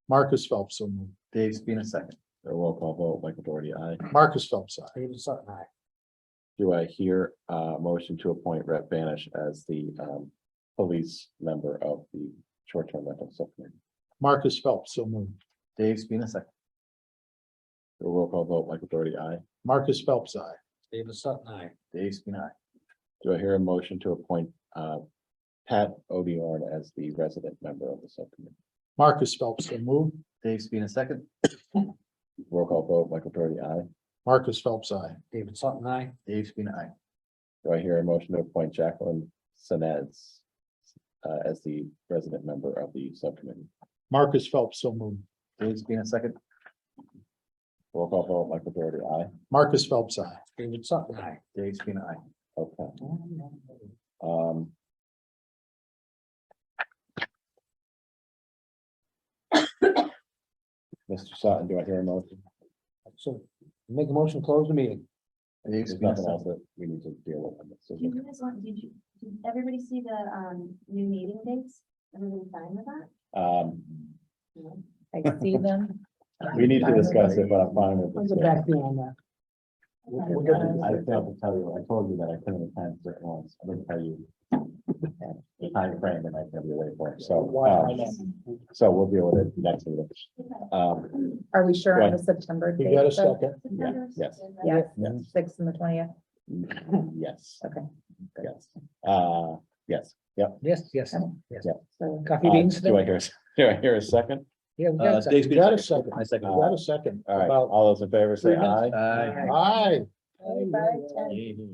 Marcus Phelps, so moved. Dave Spina second. A roll call vote, Michael Doherty, aye. Marcus Phelps, aye. David Sutton, aye. Do I hear a motion to appoint Rep Banish as the um police member of the short-term rental subcommittee? Marcus Phelps, so moved. Dave Spina second. A roll call vote, Michael Doherty, aye. Marcus Phelps, aye. David Sutton, aye. Dave Spina. aye. Do I hear a motion to appoint uh Pat Odiorn as the resident member of the subcommittee? Marcus Phelps, so moved. Dave Spina second. Roll call vote, Michael Doherty, aye. Marcus Phelps, aye. David Sutton, aye. Dave Spina. aye. Do I hear a motion to appoint Jacqueline Sinets uh as the resident member of the subcommittee? Marcus Phelps, so moved. Dave Spina second. Roll call vote, Michael Doherty, aye. Marcus Phelps, aye. David Sutton, aye. Dave Spina. aye. Okay. Um. Mr. Sutton, do I hear a motion? So make a motion, to close the meeting. Dave There's Spina nothing second. else that we need to deal with. So, Do you guys want, did you, did everybody see the um new meeting dates? Everybody fine with that? Mm-hmm. Um, I see them. we need to discuss it, but I'm fine I'll with get it. back to you on that. I didn't have to tell you, I told you that I couldn't attend certain ones. I didn't tell you. The time frame and I can be away for it, so, um, so we'll deal with it next meeting. Um, Are we sure on Right. the September? You date, got a though? second? September yes. sixth, right? Yes, Yes. six and the twentieth. yes. Okay. Good. Yes, uh, yes, yep, Yes, yes. So Coffee Uh, beans? do I hear, do I hear a second? Yeah, we Uh, got Dave that. You Spina got a second. second? I You second. got a second? uh, All right, About, all those in favor say aye. Aye. aye. five, ten. Aye.